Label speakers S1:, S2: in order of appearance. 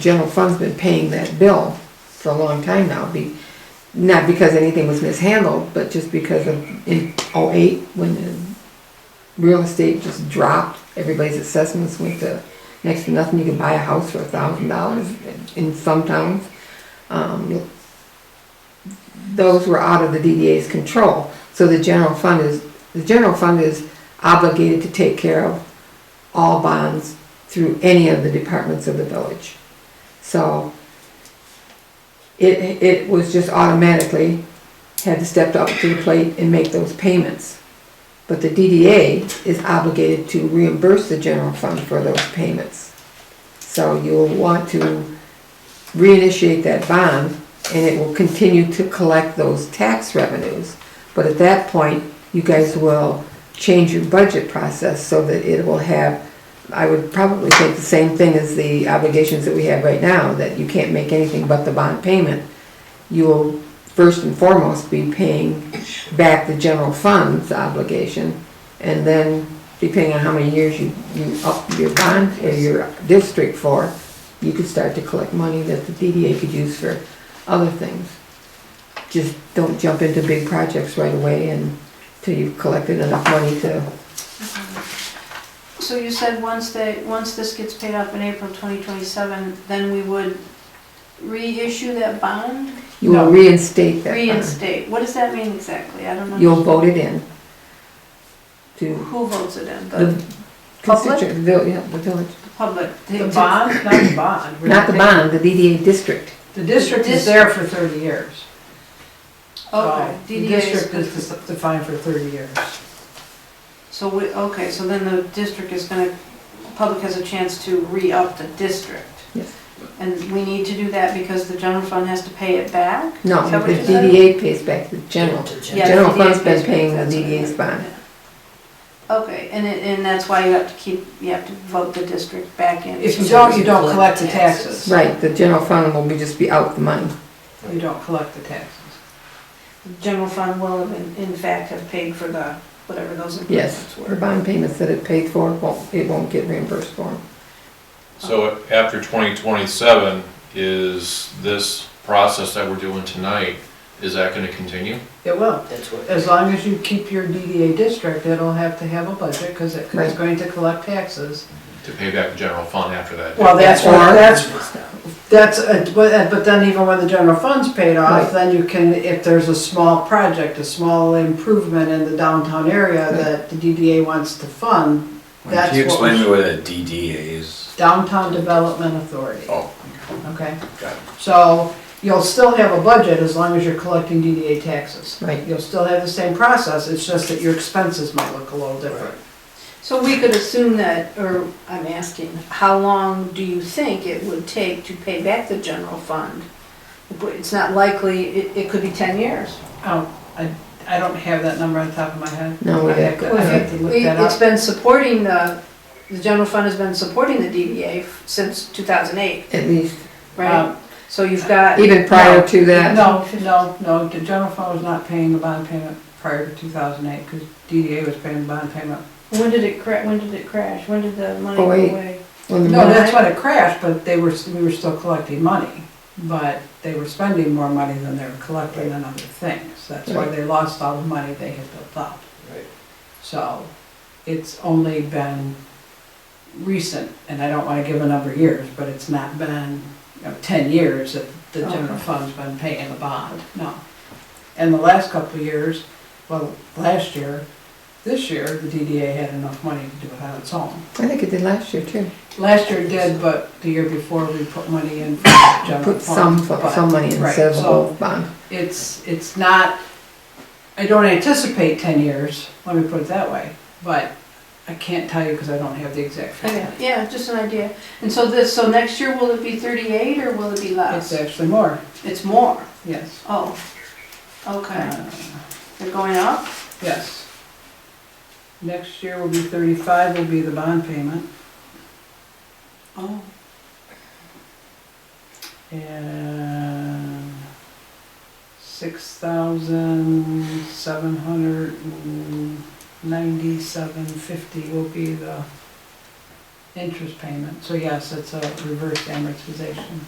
S1: general fund's been paying that bill for a long time now, be, not because anything was mishandled, but just because of in oh-eight, when the real estate just dropped, everybody's assessments went to next to nothing, you can buy a house for a thousand dollars in some towns. Um, those were out of the DDA's control, so the general fund is, the general fund is obligated to take care of all bonds through any of the departments of the village. So it, it was just automatically had to step up to the plate and make those payments. But the DDA is obligated to reimburse the general fund for those payments. So you'll want to reinitiate that bond and it will continue to collect those tax revenues. But at that point, you guys will change your budget process so that it will have, I would probably think the same thing as the obligations that we have right now, that you can't make anything but the bond payment. You will first and foremost be paying back the general fund's obligation and then depending on how many years you, you up your bond or your district for, you could start to collect money that the DDA could use for other things. Just don't jump into big projects right away and till you've collected enough money to,
S2: Mm-hmm. So you said once they, once this gets paid off in April 2027, then we would reissue that bond?
S1: you will
S2: No.
S1: reinstate that bond.
S2: Reinstate, what does that mean exactly? I don't know.
S1: You'll vote it in to
S2: Who votes it in? The
S1: the
S2: Public?
S1: constituent, vil- yeah, the village.
S2: the public?
S3: The bond, not the bond. We're
S1: Not the
S3: taking-
S1: bond, the DDA district.
S3: The district is there for thirty years.
S2: Okay,
S3: So Oh, The
S2: DDA
S3: district is
S2: is,
S3: dis- defined for thirty years.
S2: so we, okay, so then the district is gonna, public has a chance to re-up the district.
S1: Yes.
S2: And we need to do that because the general fund has to pay it back?
S1: No,
S2: Is that what
S1: the
S2: you said?
S1: DDA pays back the general.
S2: Yeah, the
S1: General
S2: DDA
S1: fund's been
S2: pays
S1: paying the
S2: back, that's what I
S1: DDA's
S2: meant,
S1: bond.
S2: yeah. Okay, and it, and that's why you have to keep, you have to vote the district back in.
S3: If you don't, you don't collect the taxes.
S1: Right, the general fund will be, just be out the money.
S3: You don't collect the taxes.
S2: General fund will have in, in fact have paid for the, whatever those
S1: Yes,
S2: improvements
S1: the
S2: were.
S1: bond payments that it paid for, won't it won't get reimbursed for 'em.
S4: So after 2027, is this process that we're doing tonight, is that going to continue?
S3: It will.
S5: That's what,
S3: As long as you keep your DDA district, it'll have to have a budget because it's
S1: Right.
S3: going to collect taxes.
S4: To pay back the general fund after that?
S3: Well, that's what,
S1: Or-
S3: that's, that's, a- but uh, but then even when the general fund's paid
S1: Right.
S3: off, then you can, if there's a small project, a small improvement in the downtown area
S1: Right.
S3: that the DDA wants to fund,
S6: Can
S3: that's
S6: you
S3: what we
S6: explain to me
S3: should-
S6: what a DDA is?
S3: Downtown Development Authority,
S6: Oh,
S3: okay?
S6: Got it.
S3: So you'll still have a budget as long as you're collecting DDA taxes.
S1: Right.
S3: You'll still have the same process, it's just that your expenses might look a little different.
S2: So we could assume that, or I'm asking, how long do you think it would take to pay back the general fund? It's not likely, it, it could be ten years.
S3: Oh, I, I don't have that number on the top of my head.
S1: No, we
S3: I'd
S1: have
S3: have
S1: to-
S3: to, I'd have to look
S2: We-
S3: that
S2: It's
S3: up.
S2: been supporting the, the general fund has been supporting the DDA f- since two thousand eight,
S1: at least,
S2: right?
S3: Um,
S2: So you've got,
S1: even prior to that.
S3: No, no, no, the general fund was not paying the bond payment prior to two thousand eight, because DDA was paying the bond payment.
S2: when did it cra, when did it crash? When did the money go
S1: Oh, wait.
S2: away?
S1: when the
S3: No,
S1: money-
S3: that's when it crashed, but they were, we were still collecting money, but they were spending more money than they were collecting on other things. That's why they lost all the money they had built up.
S5: right.
S3: So it's only been recent, and I don't wanna give a number of years, but it's not been, you know, ten years that the general fund's been paying the bond, no. And the last couple of years, well, last year, this year, the DDA had enough money to do it on its own.
S1: I think it did last year too.
S3: Last year it did, but the year before, we put money in for the general
S1: Put some,
S3: fund.
S1: fo-
S3: but
S1: some money in
S3: right,
S1: instead of a
S3: so-
S1: whole bond.
S3: It's, it's not, I don't anticipate ten years, let me put it that way, but I can't tell you because I don't have the exact figure.
S2: Okay, Oh, yeah, just an idea. And so this, so next year, will it be thirty-eight or will it be
S3: It's
S2: less?
S3: actually more,
S2: It's more,
S3: yes.
S2: oh, okay.
S3: Uh,
S2: They're going up?
S3: Yes. Next year will be thirty-five will be the bond payment,
S2: Oh.
S3: and six thousand seven hundred and ninety-seven fifty will be the interest payment, so yes, it's a reverse amortization.